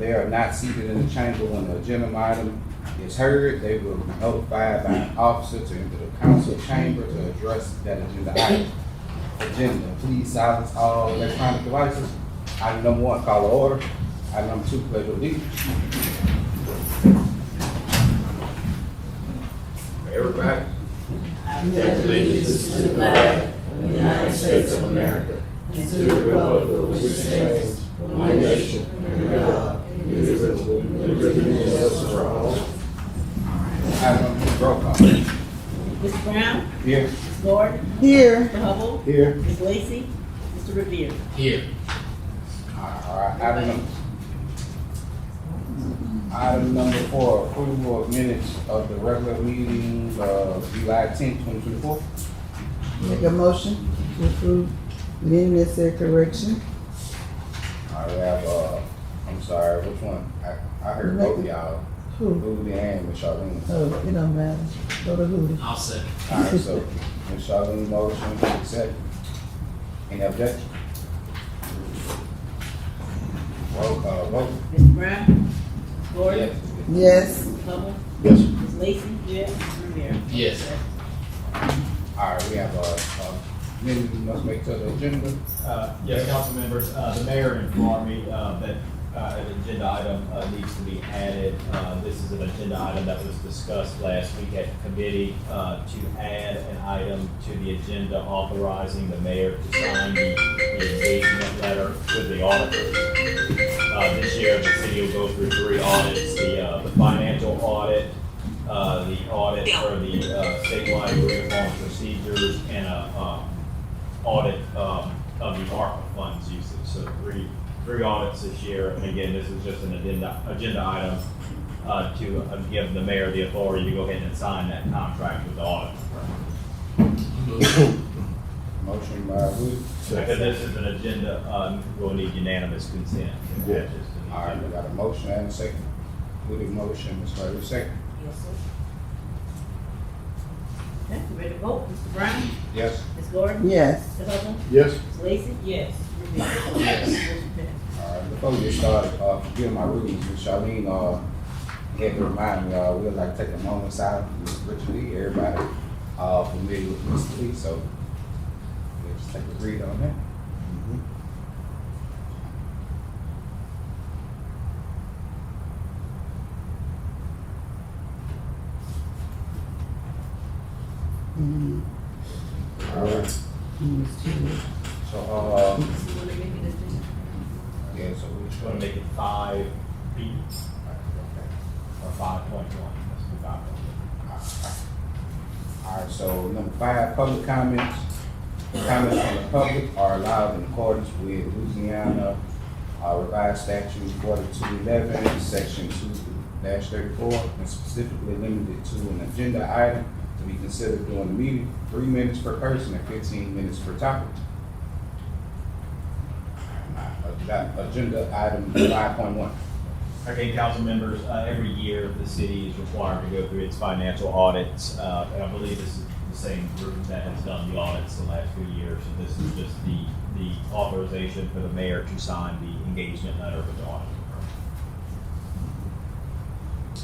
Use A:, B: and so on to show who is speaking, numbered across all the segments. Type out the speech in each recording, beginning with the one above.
A: They are not seated in the chamber when the agenda item is heard. They will be notified by an officer to enter the council chamber to address that agenda item. Agenda, please silence all electronic devices. Item number one, call to order. Item number two, pledge allegiance.
B: Everybody,
C: pledge allegiance to the flag of the United States of America and to the republic for which it stands, one nation, under God, indivisible, with liberty and justice for all.
A: Item number two, roll call.
D: Ms. Brown,
A: Here.
D: Ms. Gordon,
E: Here,
D: Mr. Hubble,
A: Here.
D: Ms. Lacy, Mr. Revere.
A: All right, item number. Item number four, approval of minutes of the regular meeting of July tenth, twenty twenty-four.
E: make a motion to approve minutes and correction.
A: I have, uh, I'm sorry, which one? I, I heard both of y'all,
E: Who?
A: Rudy and Miss Charlene.
E: Oh, it don't matter. Go to who?
F: I'll second.
A: All right, so Miss Charlene motion to accept. Any objection? Roll call vote.
D: Ms. Brown, Ms. Gordon,
E: Yes,
D: Ms. Hubble,
A: Yes.
D: Ms. Lacy, yes, Mr. Revere.
F: Yes.
A: All right, we have, uh, uh, minutes must make to the agenda.
G: Uh, Yes, council members, uh, the mayor informed me uh, that uh, an agenda item uh, needs to be added. Uh, This is an agenda item that was discussed last week at committee uh, to add an item to the agenda authorizing the mayor to sign the engagement letter with the auditor. Uh, This year, the city will go through three audits, the uh, the financial audit, uh, the audit for the uh, statewide uniform procedures, and a um, audit um, of the ARPA funds usage. So three, three audits this year. And again, this is just an agenda, agenda item uh, to uh, give the mayor the authority to go ahead and sign that contract with the audit.
A: Motion by Rudy.
G: Because this is an agenda, um, we'll need unanimous consent. to add this to the
A: All right, we
G: agenda.
A: got a motion and a second. Rudy motion, Ms. Carter second.
D: Yes, sir. Okay, you ready to vote? Mr. Brown,
A: Yes.
D: Ms. Gordon,
E: yes.
D: Mr. Hubble,
B: Yes.
D: Ms. Lacy, yes, Mr. Revere. Motion passed.
A: All right, before we get started, uh, forgive my readings, Ms. Charlene, uh, had to remind me, uh, we'd like to take a moment silent for Ms. Richard Lee, everybody, uh, familiar with Ms. Lee, so we'll just take a read on that.
E: Mm,
A: Mm-hmm. All right.
E: mm, it's too late.
A: So, uh,
D: You wanna make it a-
A: yeah, so we
G: Just
A: just
G: want
A: wanna
G: to
A: make.
G: make it five B or five point one. Let's do five point one.
A: All right, so number five, public comments. Comments from the public are allowed in accordance with Louisiana uh, revised statute forty-two eleven, section two thirty-four, and specifically limited to an agenda item to be considered during the meeting, three minutes per person and fifteen minutes per topic. Agenda- Agenda item five point one.
G: Okay, council members, uh, every year the city is required to go through its financial audits, uh, and I believe this is the same group that has done the audits the last few years. So this is just the, the authorization for the mayor to sign the engagement letter with the audit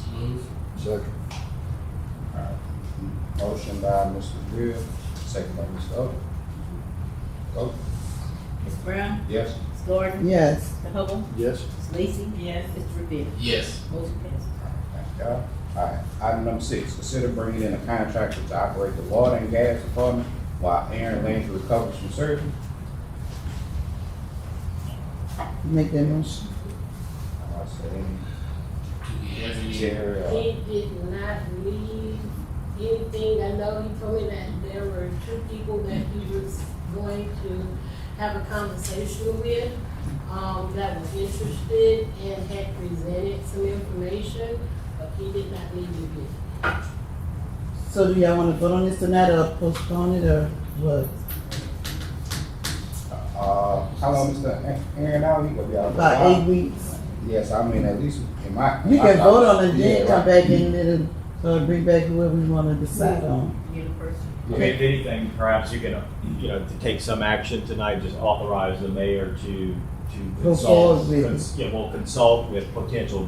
G: firm.
F: Move.
B: Second.
A: Uh, Motion by Mr. Greer, second by Mr. Oates. Vote,
D: Ms. Brown,
A: yes?
D: Ms. Gordon,
E: Yes,
D: Mr. Hubble,
B: Yes.
D: Ms. Lacy, yes, Mr. Revere.
F: Yes.
D: Motion passed.
A: Thank y'all. All right, item number six, consider bringing in a contractor to operate the water and gas department while Aaron Landry recovers from surgery.
E: make that motion.
A: I say,
F: Do we have any,
A: Chair, uh,
H: He did not leave anything. I know he told me that there were two people that he was going to have a conversation with, um, that was interested and had presented some information, but he did not leave anything.
E: So do y'all wanna vote on this tonight or postpone it or what?
A: uh, how long Mr. A- Aaron out, he gonna be out? for a
E: About
A: while?
E: eight weeks?
A: Yes, I mean, at least in my. in
E: You
A: my
E: can vote on it,
A: thoughts.
E: then
A: Yeah,
E: come
A: right.
E: back and let it, uh, bring back whoever we wanna decide on.
D: You're the first.
G: I mean, if anything, perhaps you can, uh, you know, to take some action tonight, just authorize the mayor to, to to
E: Go forward
G: consult,
E: with it.
G: cons- yeah, well, consult with potential